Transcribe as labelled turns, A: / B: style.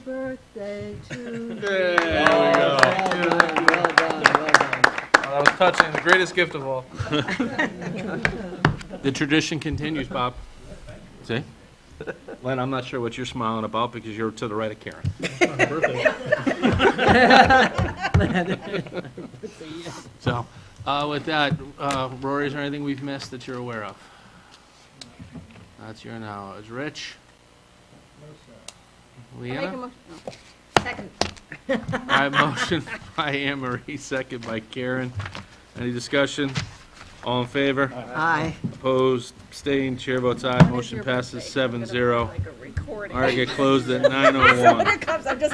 A: Birthday to you.
B: There we go.
A: Well done, well done, well done.
B: That was touching, the greatest gift of all.
C: The tradition continues, Bob. See? Len, I'm not sure what you're smiling about because you're to the right of Karen. So, uh, with that, uh, Rory, is there anything we've missed that you're aware of? That's your knowledge. Rich?
D: Make a
C: Leanna?
D: motion, no. Second.
C: I motion by Anne Marie, second by Karen. Any discussion? All in favor?
A: Aye.
C: Opposed, abstained, chair votes aye,
D: What is
C: motion
D: your
C: passes
D: birthday? I'm
C: seven
D: gonna be
C: zero.
D: Like a recording.
C: All right, get closed at nine oh one.
D: Here it comes, I'm just